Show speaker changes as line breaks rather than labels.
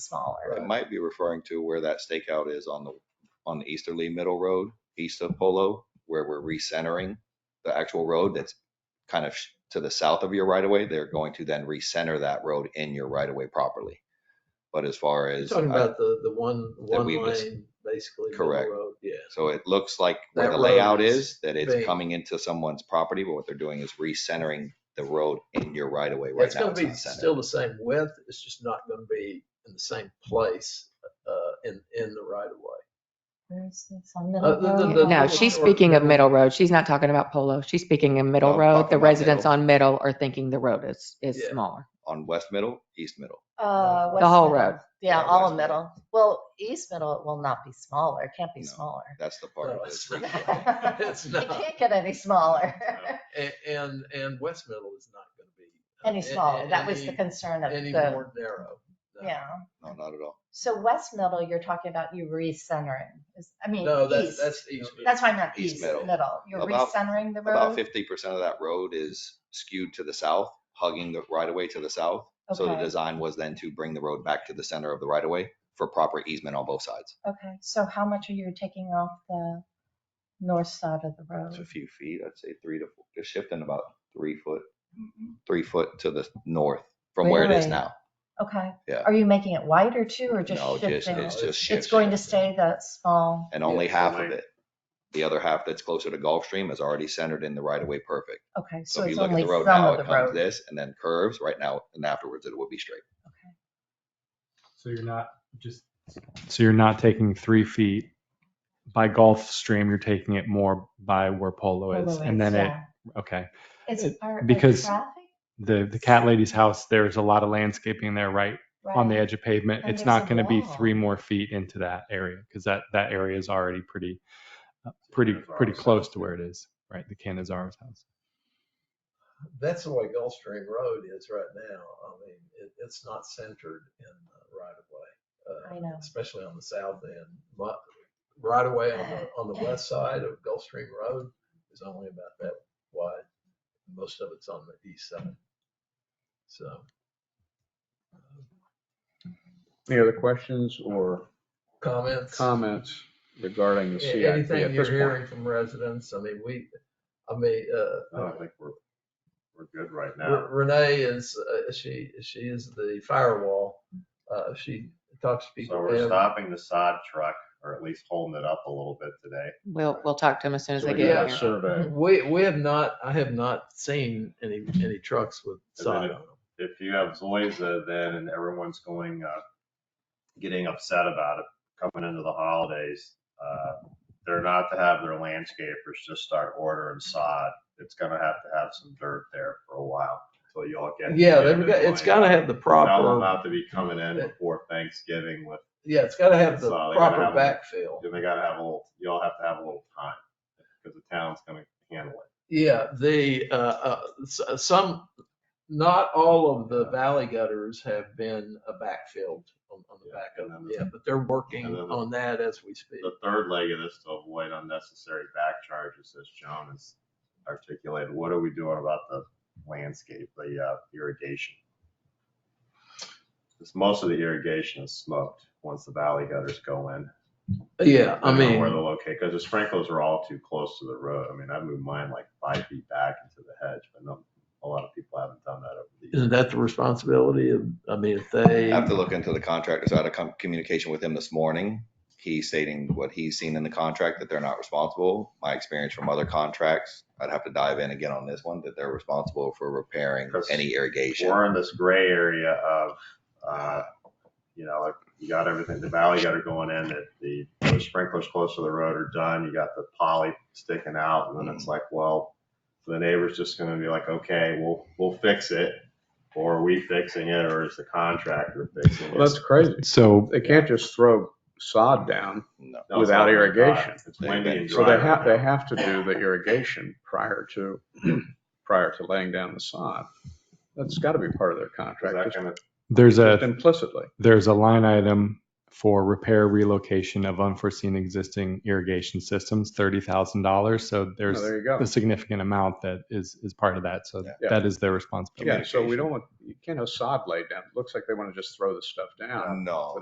It
smaller.
might be referring to where that stakeout is on the, on the easterly middle road, east of Polo, where we're recentering the actual road that's kind of sh- to the south of your right of way. They're going to then recenter that road in your right of way properly. But as far
You're
as, uh,
Talking
I-
about the, the one,
That
one
we was-
lane, basically. middle
Correct.
road, Yeah.
so it looks like where
That
the
road
layout
is
is, that it's
big.
coming into someone's property, but what they're doing is recentering the road in your right of way right
It's
now.
gonna
It's
be
not
still
centered.
the same width, it's just not gonna be in the same place, uh, in, in the right of way.
Where's this on
Uh, the- the-
Middle
the-
No,
Road?
she's speaking of Middle Road. She's not talking about Polo. She's speaking of Middle
No,
Road.
talking
The
about
residents
Middle.
on Middle are thinking the road is, is
Yeah.
smaller.
On west middle, east middle.
Uh,
The whole
West Middle.
road.
Yeah,
Yeah,
all
West
of
Middle.
middle. Well, East Middle will not be smaller. It can't be
No.
smaller.
That's the part
No,
of
it's
this.
not. It's
It
not.
can't get any smaller,
And, and, and West Middle is not gonna be. uh,
any
a-
smaller.
a-
That was the
any-
concern of
Any
the,
more narrow. no.
yeah.
No, not at all.
So West Middle, you're talking about you recentering. Is- I mean,
No, that's,
east.
that's east.
That's why I meant
East
east
Middle.
middle. You're
About-
recentering the
About
road?
fifty percent of that road is skewed to the south, hugging the right of way to the south. So the
Okay.
design was then to bring the road back to the center of the right of way for proper easement on both sides.
Okay, so how much are you taking off the north side of the
It's a
road?
few feet, I'd say three to, four, just shifting about three foot, three foot to the north from where it is
Mm-hmm. Really?
now.
Okay.
Yeah.
Are you making it wider too, or just
No, just,
shifting?
it's just
It's
shifting
going to stay that small,
and only
Yeah,
half of
like-
it. The other half that's closer to Gulfstream is already centered in the right of way perfect.
okay,
So
so
if
it's
you look at
only
the
some
road now,
of
it
the
comes
road.
this and then curves right now and afterwards it would be straight.
So you're not just. So you're not taking three feet by Gulf Stream, you're taking it more by where Polo is. And then it,
Yeah.
okay.
It's
it-
part of
because
traffic,
The, the cat lady's house, there's a lot of landscaping there, right? On the
right?
edge of pavement.
And
It's
there's
not
a
going to be
wall.
three more feet into that area because that, that area is already pretty, uh, pretty, pretty close to where it is, right? The Canizaro's house.
That's the way Gulfstream Road is right now. I mean, it, it's not centered in the right of way. uh,
I know.
Especially on the south end, but right of way on the, on the west side of Gulfstream Road is only about that wide. Most of it's on the east side. So.
Any other questions or
Comments?
comments regarding the
A-
CIP at
Anything you're
this point?
hearing from residents? I mean, we, I mean, uh,
I don't think we're, we're good right
Re-
now.
Renee is, uh, she, she is the firewall. Uh, she talks to people.
So we're
and-
stopping the sod truck, or at least holding it up a little bit today.
We'll, we'll talk to them as soon as
So
they
we
get
Yeah.
got
here.
a survey.
We, we have not, I have not seen any, any trucks with
And
sod
then
on them.
If you have Zoysia, then everyone's going, uh, getting upset about it coming into the holidays. Uh, They're not to have their landscapers just start ordering sod. It's gonna have to have some dirt there for a while until y'all get.
Yeah,
get
they've
it
got,
in
it's
line.
gotta have the
Tell them
proper,
not to be coming in before Thanksgiving with,
yeah, it's gotta have the
So they gotta
proper
have-
backfill.
they gotta have a little, y'all have to have a little time, because the town's gonna handle it.
Yeah, the, uh, uh, s- some, not all of the valley gutters have been uh, backfilled on, on the
Yeah,
back of
and
them.
then the-
Yeah, but they're working
and then the-
on that as we speak.
the third leg of this to avoid unnecessary back charges, as John has articulated, what are we doing about the landscape, the uh, irrigation? Because most of the irrigation is smoked once the valley gutters go in.
Yeah, I
don't know
mean.
Where they'll locate, because the sprinklers are all too close to the road. I mean, I moved mine like five feet back into the hedge, but no, a lot of people haven't done that over the years.
Isn't that the responsibility of, I mean, if they,
I have to look into the contractor. So I had a com- communication with him this morning. He's stating what he's seen in the contract, that they're not responsible. My experience from other contracts, I'd have to dive in again on this one, that they're responsible for repairing any irrigation.
we're in this gray area of, uh, you know, like you got everything, the valley gutter going in, that the the sprinklers close to the road are done, you got the poly sticking out, and then
Mm-hmm.
it's like, well, the neighbor's just gonna be like, okay, we'll, we'll fix it, or are we fixing it, or is the contractor fixing it?
Well, That's crazy.
So
They can't just throw sod down.
No.
No, it's
without
not very dry.
irrigation.
uh, It's windy and
So
dry
they
right
have, they
now.
have to do the irrigation prior to, prior to laying down the sod. That's got to be part of their
Is
contract,
that
just-
gonna-
there's
just
a,
implicitly. Oh,
there's a line item for repair relocation of unforeseen existing irrigation systems, thirty thousand dollars. So
Oh,
there's
There you go.
a significant amount that is is part of that. So
Yeah.
that is their responsibility.
Yeah, so we don't want, you can't have sod laid down. It looks like they want to just throw this stuff down.
No.